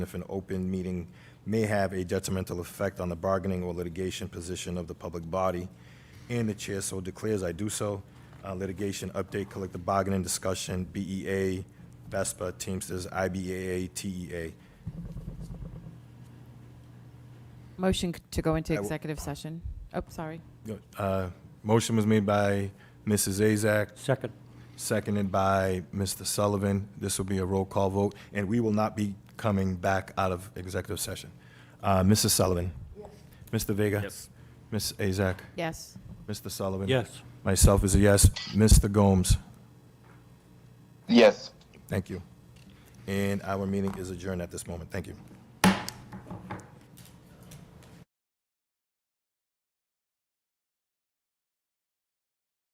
if an open meeting may have a detrimental effect on the bargaining or litigation position of the public body, and the chair so declares, I do so. Uh, Litigation update, collective bargaining discussion, BEA, VESPA, Teamsters, IBAA, TEA. Motion c- to go into I w- executive session. Oh, sorry. Uh, Motion was made by Mrs. Azak, Second. seconded by Mr. Sullivan. This will be a roll call vote, and we will not be coming back out of executive session. Uh, Mrs. Sullivan? Mr. Vega? Yes. Ms. Azak? Yes. Mr. Sullivan? Yes. Myself is a yes. Mr. Gomes? Yes. Thank you. And our meeting is adjourned at this moment. Thank you.